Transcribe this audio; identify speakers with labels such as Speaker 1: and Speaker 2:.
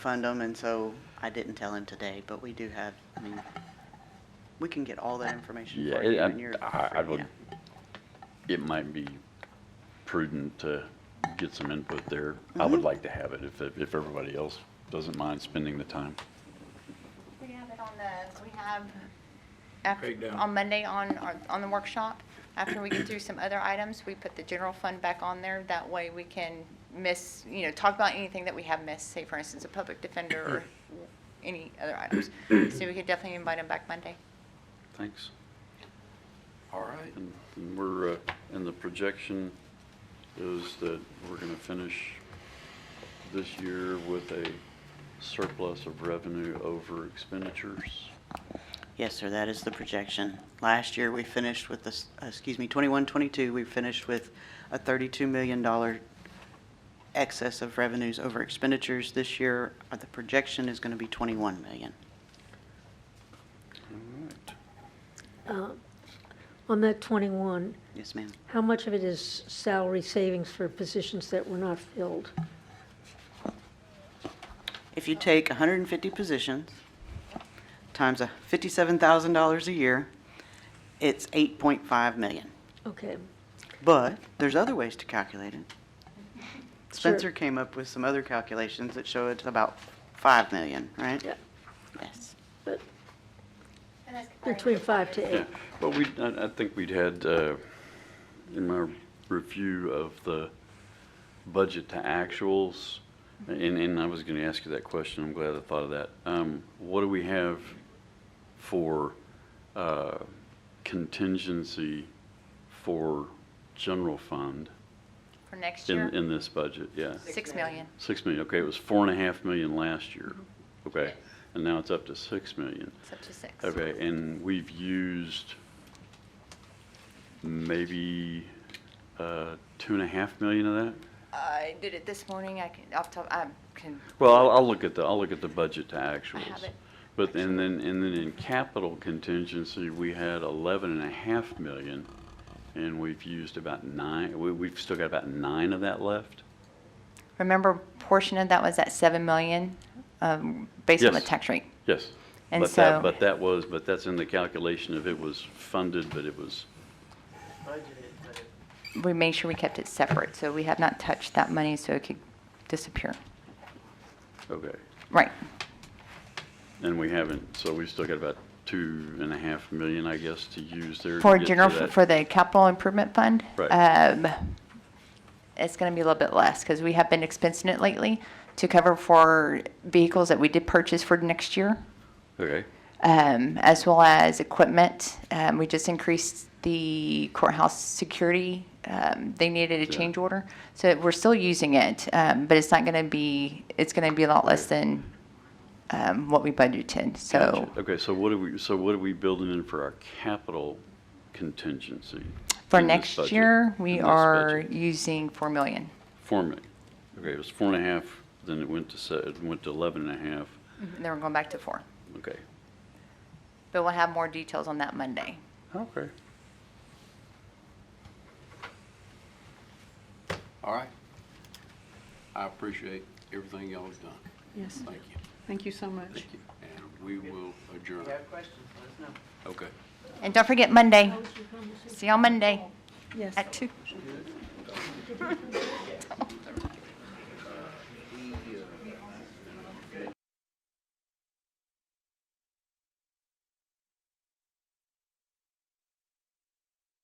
Speaker 1: fund them, and so I didn't tell him today, but we do have, I mean, we can get all that information
Speaker 2: Yeah,
Speaker 1: for you when
Speaker 2: it-
Speaker 1: you're.
Speaker 2: I, I I
Speaker 1: free,
Speaker 2: would,
Speaker 1: yeah.
Speaker 2: it might be prudent to get some input there. I
Speaker 1: Mm-hmm.
Speaker 2: would like to have it if, if everybody else doesn't mind spending the time.
Speaker 3: We have it on the, we have, after,
Speaker 4: Breakdown.
Speaker 3: on Monday on, our- on the workshop, after we get through some other items, we put the general fund back on there. That way we can miss, you know, talk about anything that we have missed, say for instance, a public defender or any other items. So we could definitely invite them back Monday.
Speaker 2: Thanks.
Speaker 4: All right.
Speaker 2: And and we're, uh, and the projection is that we're going to finish this year with a surplus of revenue over expenditures.
Speaker 1: Yes, sir, that is the projection. Last year, we finished with this, uh, excuse me, twenty-one, twenty-two, we finished with a thirty-two million dollar excess of revenues over expenditures. This year, uh, the projection is gonna be twenty-one million.
Speaker 2: All right.
Speaker 5: Uh, On that 21,
Speaker 1: Yes, ma'am.
Speaker 5: how much of it is salary savings for positions that were not filled?
Speaker 1: If you take 150 positions times a $57,000 a year, it's 8.5 million.
Speaker 5: Okay,
Speaker 1: But there's other ways to calculate it. Spencer
Speaker 5: Sure.
Speaker 1: came up with some other calculations that show it's about 5 million, right?
Speaker 5: yeah,
Speaker 1: Yes.
Speaker 5: but between five to
Speaker 2: Yeah,
Speaker 5: eight.
Speaker 2: well, we, I, I think we'd had, uh, in my review of the budget to actuals, and, and I was gonna ask you that question, I'm glad I thought of that. Um, what do we have for, uh, contingency for general fund
Speaker 3: For next
Speaker 2: in,
Speaker 3: year,
Speaker 2: in this budget, yeah?
Speaker 3: six million.
Speaker 2: Six million, okay, it was four and a half million last year, okay, and now it's up to six million.
Speaker 3: It's up to six.
Speaker 2: Okay, and we've used maybe uh, two and a half million of that?
Speaker 3: I did it this morning. I can, off top, I can,
Speaker 2: Well, I'll, I'll look at the, I'll look at the budget to actuals.
Speaker 3: it.
Speaker 2: But, and then, and then in capital contingency, we had eleven and a half million, and we've used about nine, we, we've still got about nine of that left?
Speaker 3: remember portion of that was at seven million, um, based on the
Speaker 2: Yes.
Speaker 3: tax rate.
Speaker 2: Yes.
Speaker 3: And
Speaker 2: But that-
Speaker 3: so-
Speaker 2: But that was, but that's in the calculation of it was funded, but it was,
Speaker 3: we made sure we kept it separate, so we have not touched that money so it could disappear.
Speaker 2: okay.
Speaker 3: Right.
Speaker 2: And we haven't, so we've still got about two and a half million, I guess, to use there. to
Speaker 3: For
Speaker 2: get to
Speaker 3: general,
Speaker 2: that.
Speaker 3: for the capital improvement fund.
Speaker 2: Right.
Speaker 3: um, It's going to be a little bit less because we have been expensing it lately to cover for vehicles that we did purchase for next year.
Speaker 2: Okay,
Speaker 3: um, as well as equipment. Um, we just increased the courthouse security. Um, they needed a
Speaker 2: Yeah.
Speaker 3: change order, so we're still using it, um, but it's not going to be. It's going to be a lot less than um, what we budgeted. So
Speaker 2: Gotcha. okay, so what are we, so what are we building in for our capital contingency?
Speaker 3: for
Speaker 2: in this
Speaker 3: next
Speaker 2: budget?
Speaker 3: year, we
Speaker 2: In this
Speaker 3: are
Speaker 2: budget?
Speaker 3: using four million.
Speaker 2: Four million, okay, it was four and a half, then it went to, se- it went to eleven and a half,
Speaker 3: And then we're going back to four,
Speaker 2: okay.
Speaker 3: but we'll have more details on that Monday.
Speaker 2: Okay.
Speaker 4: All right. I appreciate everything y'all have done.
Speaker 5: Yes.
Speaker 4: Thank you.
Speaker 6: Thank you so much.
Speaker 4: Thank you. And we will adjourn.
Speaker 1: questions, let us know.
Speaker 4: Okay.
Speaker 3: And don't forget Monday. See you on Monday
Speaker 6: Yes.
Speaker 3: at two.